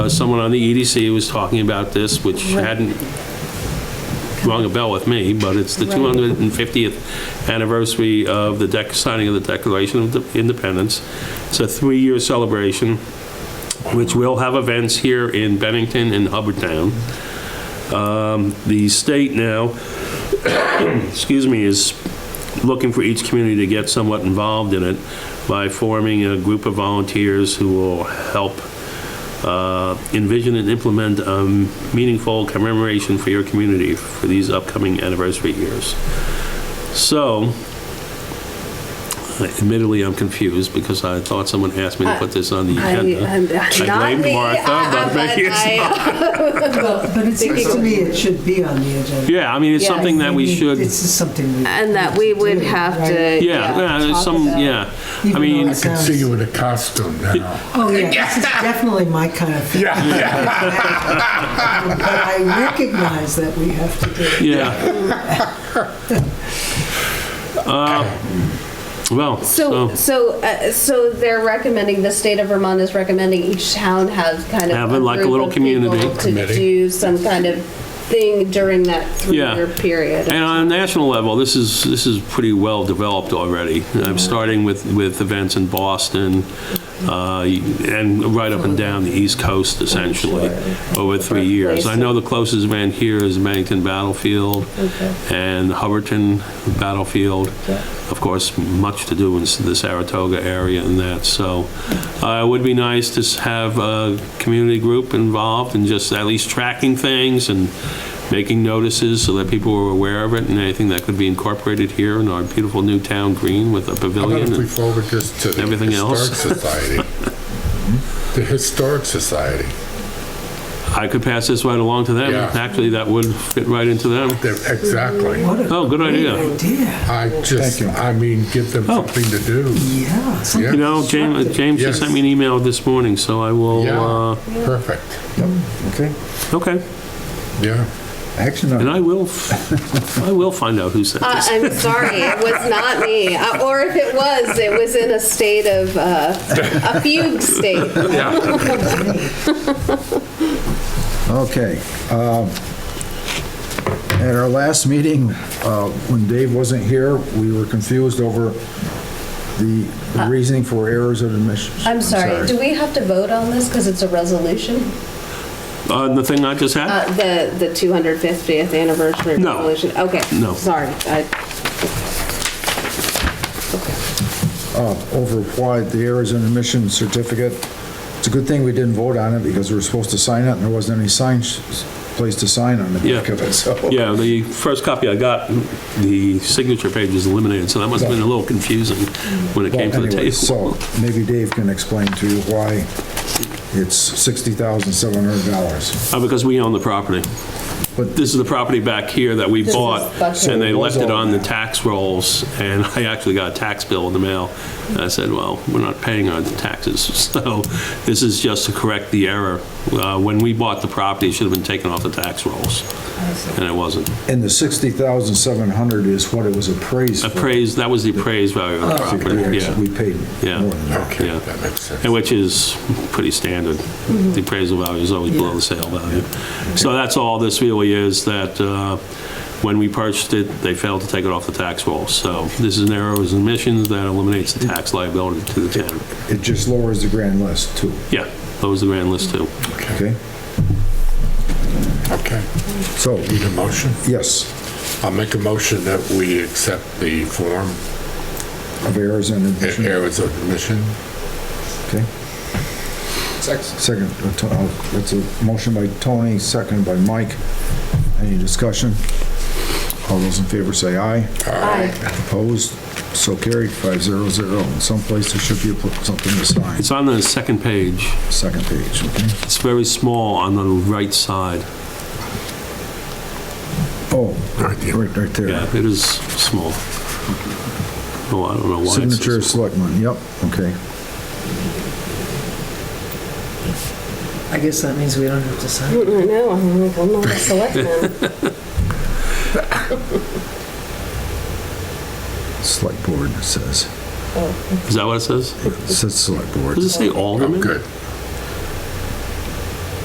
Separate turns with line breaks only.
Uh, Someone on the EDC was talking about this, which
Right.
hadn't rung a bell with me, but it's the
Right.
250th anniversary of the dec, signing of the Declaration of Independence. It's a three-year celebration, which will have events here in Bennington and Hubbardtown. Um, The state now, excuse me, is looking for each community to get somewhat involved in it by forming a group of volunteers who will help uh, envision and implement a meaningful commemoration for your community for these upcoming anniversary years. So, admittedly, I'm confused because I thought someone asked me to put this on the
I, I'm
agenda.
not me.
uh, I blamed
uh, uh,
Martha, but maybe it's
I-
not.
But it seems to me it should be on the agenda.
Yeah, I mean, it's
Yeah.
something that we
Maybe
should,
This is something we.
And that we
need to
would
do,
have
right?
to.
yeah, yeah, there's
talk
some,
about-
yeah. I
Even though
mean,
it
Can
sounds-
see you in a costume now.
Oh, yeah, this is definitely my kind of thing.
Yeah, yeah.
But I recognize that we have to do it.
yeah. Uh, Well,
So,
so,
so, uh, so they're recommending, the state of Vermont is recommending each town has kind of.
Have it like a
group
little
of people
community.
To
Committee.
do some kind of thing during that three-year
Yeah.
period.
and on a national level, this is, this is pretty well developed already. I'm starting with, with events in Boston, uh, and right up and down the East Coast essentially, over three years. I know the closest event here is Bennington Battlefield and Hubbardton Battlefield. Of course, much to do in the Saratoga area and that, so uh, it would be nice to s- have a community group involved and just at least tracking things and making notices so that people were aware of it and anything that could be incorporated here in our beautiful new town green with a
How about
pavilion.
if we
and-
forward this to the
Everything
Historic
else?
Society? The Historic Society.
I could pass this right along to them.
Yeah.
Actually, that would fit right into them.
They're- Exactly.
What a
Oh, good
great
idea.
Idea,
I just, I mean, give them
Oh.
something to do.
yeah.
You
something
know, James, uh,
constructive.
James just sent me an email this morning, so I will,
Yeah,
uh,
perfect.
Okay,
okay,
Yeah.
action
and
on
I will, f- I will find out who sent
Uh,
this.
I'm sorry, it was not me. Uh, Or if it was, it was in a state of, uh, a fugue state.
Okay. um, At our last meeting, uh, when Dave wasn't here, we were confused over the the reasoning for errors of admissions.
Uh, I'm sorry, do we have to vote on this because it's a resolution?
Uh, the thing I just had?
Uh, The, the 250th anniversary
No.
resolution? Okay.
No.
Sorry. I-
Uh, Over why the errors and admission certificate. It's a good thing we didn't vote on it because we were supposed to sign it and there wasn't any sign, sh- place to sign on the back
Yeah.
of it, so.
Yeah, the first copy I got, the signature page is eliminated, so that must have been a little confusing when it
Well,
came to the
anyway,
table.
So maybe Dave can explain to you why it's $60,700.
Uh, Because we own the property.
But-
This is the property back here that we
This is
bought,
Buckhead.
and they
So it was
left it
all
on the
that.
tax rolls, and I actually got a tax bill in the mail. And I said, well, we're not paying our taxes, so this is just to correct the error. Uh, When we bought the property, it should have been taken off the tax rolls, and it wasn't.
And the 60,700 is what it was appraised for.
Appraised, that was the appraised value of
Oh,
the property,
Yeah,
yeah.
We paid
Yeah.
more than that.
Okay,
Yeah.
that makes sense.
And which is pretty standard. The appraisal value is always below the sale value. So that's all this really is, that uh, when we purchased it, they failed to take it off the tax roll. So this is an error of omissions that eliminates the tax liability to the town.
It just lowers the grand list too,
Yeah, that was the grand list too.
okay?
Okay.
So,
Need a motion?
yes,
I'll make a motion that we accept the form,
of errors and admission,
errors of admission.
okay? Second, uh, To- uh, that's a motion by Tony, second by Mike. Any discussion? All those in favor say aye.
Aye.
Opposed? So carried, five zero zero. In some place there should be a- something to sign,
It's on the second page.
second page, okay?
It's very small on the right side.
Oh,
Right there.
right, right there.
Yeah, it is small. Oh, I don't know why. it's so
Signature
small.
selectman, yep, okay.
I guess that means we don't have to sign.
I know, I'm like, I'm not a selectman.
Select board, it says.
Is that what it says?
It says select board.
Does it say
Oh,
alderman?
good.